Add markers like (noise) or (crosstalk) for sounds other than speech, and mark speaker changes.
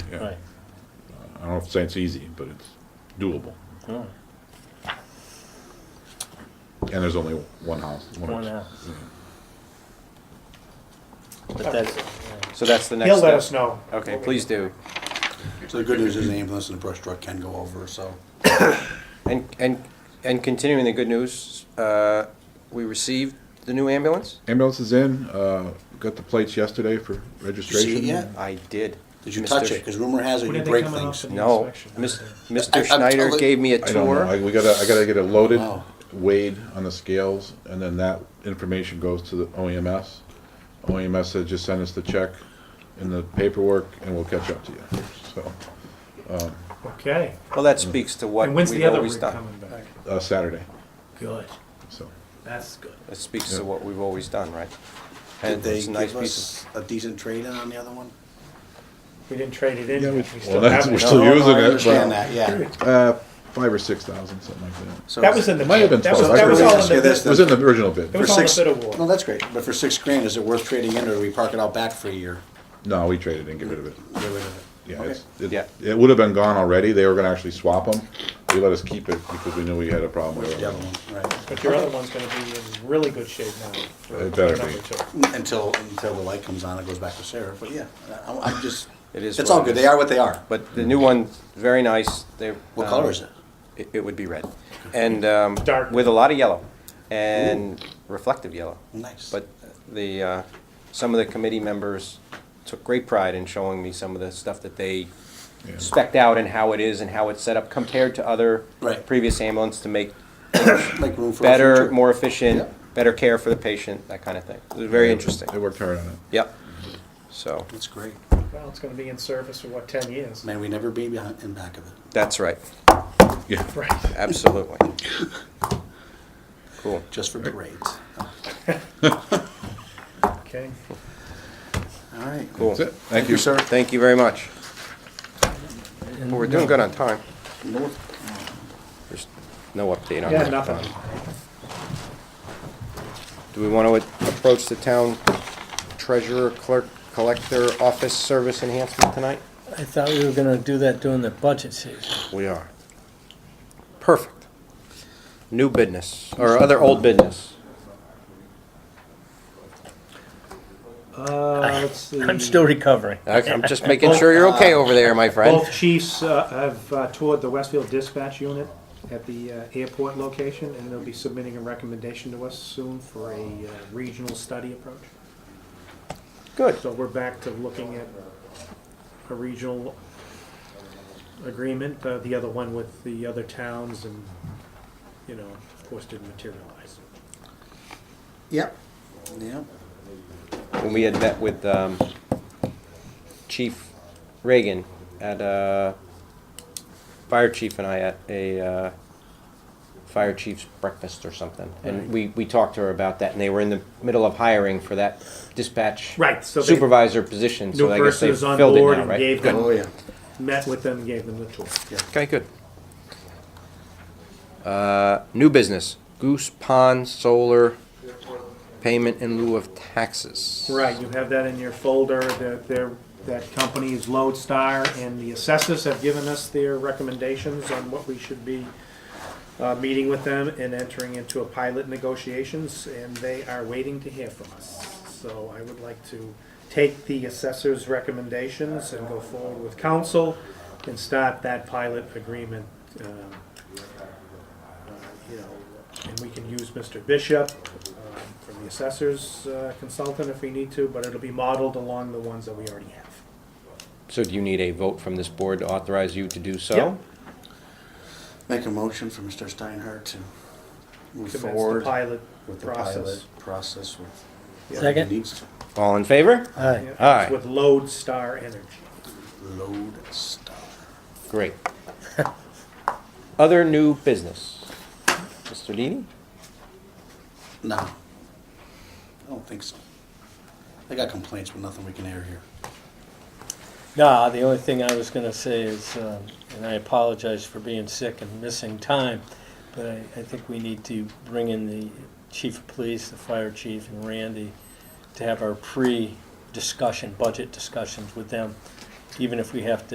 Speaker 1: yeah.
Speaker 2: Right.
Speaker 1: I don't know if it's easy, but it's doable.
Speaker 2: Oh,
Speaker 1: And there's only one house.
Speaker 2: One
Speaker 1: house.
Speaker 2: house. But that's,
Speaker 3: So that's the next
Speaker 4: He'll let us
Speaker 3: step.
Speaker 4: know.
Speaker 3: Okay, please do.
Speaker 5: So the good news is the ambulance and the brush truck can go over, so.
Speaker 3: And, and, and continuing the good news, uh, we received the new ambulance?
Speaker 1: Ambulance is in, uh, got the plates yesterday for
Speaker 5: Did you see it
Speaker 1: registration.
Speaker 5: yet?
Speaker 3: I did.
Speaker 5: Did you touch it? Because rumor has it
Speaker 6: When
Speaker 5: you
Speaker 6: are they
Speaker 5: break
Speaker 6: coming up
Speaker 5: things.
Speaker 6: for the
Speaker 3: No.
Speaker 6: inspection?
Speaker 3: Mis-
Speaker 5: I-
Speaker 3: Mr.
Speaker 5: I'm
Speaker 3: Schneider
Speaker 5: totally-
Speaker 3: gave me a
Speaker 1: I don't know, I,
Speaker 3: tour.
Speaker 1: we gotta, I gotta get it loaded,
Speaker 5: Wow.
Speaker 1: weighed on the scales, and then that information goes to the E OEMS. OEMS E said just send us the check and the paperwork, and we'll catch up to you, so,
Speaker 6: Okay.
Speaker 3: Well, that speaks to what
Speaker 6: And when's
Speaker 3: we've
Speaker 6: the other
Speaker 3: always
Speaker 6: rig
Speaker 3: done.
Speaker 6: coming back?
Speaker 1: uh, Saturday,
Speaker 6: Good.
Speaker 1: so.
Speaker 6: That's good.
Speaker 3: That speaks
Speaker 1: Yeah.
Speaker 3: to what we've always done, right?
Speaker 5: Did
Speaker 3: And
Speaker 5: they
Speaker 3: it's a nice
Speaker 5: give
Speaker 3: piece
Speaker 5: us a decent trade in on the other one?
Speaker 6: We didn't trade it in.
Speaker 1: Yeah, we-
Speaker 6: We
Speaker 1: well,
Speaker 6: still
Speaker 1: that's,
Speaker 6: have
Speaker 1: we're
Speaker 6: it.
Speaker 3: No,
Speaker 1: still
Speaker 3: no, no, I
Speaker 1: using it,
Speaker 5: Understand
Speaker 1: but,
Speaker 5: that, yeah.
Speaker 1: uh, five or six thousand, something like that.
Speaker 5: So-
Speaker 4: That was in the
Speaker 1: Might have been
Speaker 4: that was,
Speaker 1: twelve.
Speaker 4: that was
Speaker 1: I
Speaker 4: all
Speaker 1: couldn't
Speaker 4: in the,
Speaker 5: remember.
Speaker 4: bid-
Speaker 1: It was in the original bid.
Speaker 4: it was
Speaker 5: For
Speaker 4: all in the
Speaker 5: six-
Speaker 4: bid
Speaker 5: No,
Speaker 4: award.
Speaker 5: that's great, but for six grand, is it worth trading in or do we park it out back for a year?
Speaker 1: No, we traded and get rid of it.
Speaker 5: Get rid of it.
Speaker 1: Yeah, it's, it,
Speaker 3: Yeah.
Speaker 1: it would have been gone already. They were gonna actually swap them. They let us keep it because we knew we had a problem. with
Speaker 5: The other
Speaker 1: it.
Speaker 5: one, right.
Speaker 4: But your other one's gonna be in really good shape now. for
Speaker 1: It better
Speaker 4: number
Speaker 1: be.
Speaker 4: two.
Speaker 5: Until, until the light comes on, it goes back to Sarah, but yeah, I- I'm, I'm just,
Speaker 3: It is
Speaker 5: it's
Speaker 3: what
Speaker 5: all
Speaker 3: it
Speaker 5: good,
Speaker 3: is.
Speaker 5: they are what they are.
Speaker 3: of, but the new one, very nice. They're,
Speaker 5: What
Speaker 3: um,
Speaker 5: color is it?
Speaker 3: It, it would be red. And, um,
Speaker 4: Dark.
Speaker 3: with a lot of yellow and reflective yellow.
Speaker 5: Nice.
Speaker 3: But the, uh, some of the committee members took great pride in showing me some of the stuff that they
Speaker 1: Yeah.
Speaker 3: spec'd out and how it is and how it's set up compared to other
Speaker 5: Right.
Speaker 3: previous ambulance to make
Speaker 5: Make room for a
Speaker 3: better,
Speaker 5: future.
Speaker 3: more efficient,
Speaker 5: Yeah.
Speaker 3: better care for the patient, that kind of thing. It was very interesting.
Speaker 1: They worked hard on it.
Speaker 3: Yep. So,
Speaker 5: That's great.
Speaker 4: Well, it's gonna be in service for what, ten years?
Speaker 5: May we never be behind, in back of it.
Speaker 3: that's right.
Speaker 1: Yeah.
Speaker 4: Right.
Speaker 3: Absolutely. Cool.
Speaker 5: just for parades.
Speaker 4: Okay.
Speaker 5: All right.
Speaker 3: Cool.
Speaker 1: That's it. Thank you.
Speaker 5: sir.
Speaker 3: Thank you very much. Well, we're doing good on time. There's no update on
Speaker 4: Yeah,
Speaker 3: that.
Speaker 4: nothing.
Speaker 3: Do we want to approach the town treasurer, clerk, collector, office service enhancement tonight?
Speaker 2: I thought we were gonna do that during the budget season.
Speaker 3: We are. Perfect. New business, or other old business.
Speaker 6: Uh, let's see.
Speaker 2: I'm still recovering.
Speaker 3: Okay, I'm just making sure you're okay over there, my friend.
Speaker 6: Both chiefs uh, have uh, toured the Westfield Dispatch Unit at the uh, airport location, and they'll be submitting a recommendation to us soon for a uh, regional study approach.
Speaker 3: Good.
Speaker 6: So we're back to looking at a regional agreement, uh, the other one with the other towns, and, you know, of course, didn't materialize.
Speaker 5: Yep. Yep.
Speaker 3: When we had met with um, Chief Reagan at, uh, Fire Chief and I at a uh, Fire Chief's breakfast or something. And we, we talked to her about that, and they were in the middle of hiring for that dispatch
Speaker 6: Right, so they-
Speaker 3: supervisor position,
Speaker 6: New
Speaker 3: so I guess
Speaker 6: person
Speaker 3: they
Speaker 6: is on
Speaker 3: filled it
Speaker 6: board
Speaker 3: now,
Speaker 6: and
Speaker 3: right?
Speaker 6: gave
Speaker 5: Oh,
Speaker 6: them,
Speaker 5: yeah.
Speaker 6: met with them, gave them the tour.
Speaker 3: Okay, good. Uh, New business, Goose Pond Solar Payment in lieu of taxes.
Speaker 6: Right, you have that in your folder, that there, that company is Lodestar, and the assessors have given us their recommendations on what we should be uh, meeting with them and entering into a pilot negotiations, and they are waiting to hear from us. So I would like to take the assessors' recommendations and go forward with council and start that pilot agreement, um, uh, you know, and we can use Mr. Bishop um, from the assessors uh, consultant if we need to, but it'll be modeled along the ones that we already have.
Speaker 3: So do you need a vote from this board to authorize you to do
Speaker 6: Yeah.
Speaker 3: so?
Speaker 5: Make a motion for Mr. Steinhardt to move
Speaker 6: Commence the
Speaker 5: forward
Speaker 6: pilot
Speaker 5: with the
Speaker 6: process.
Speaker 5: pilot process. With
Speaker 2: Second.
Speaker 5: He needs
Speaker 3: All in favor?
Speaker 2: Aye.
Speaker 6: Yeah,
Speaker 3: All right.
Speaker 6: With Lodestar Energy.
Speaker 5: to load stuff.
Speaker 6: (laughs)
Speaker 3: Great. Other new business? Mr. Deeney?
Speaker 5: No, I don't think so. I got complaints, but nothing we can air here.
Speaker 2: No, the only thing I was gonna say is, um, and I apologize for being sick and missing time, but I, I think we need to bring in the chief of police, the fire chief, and Randy to have our pre-discussion, budget discussions with them, even if we have to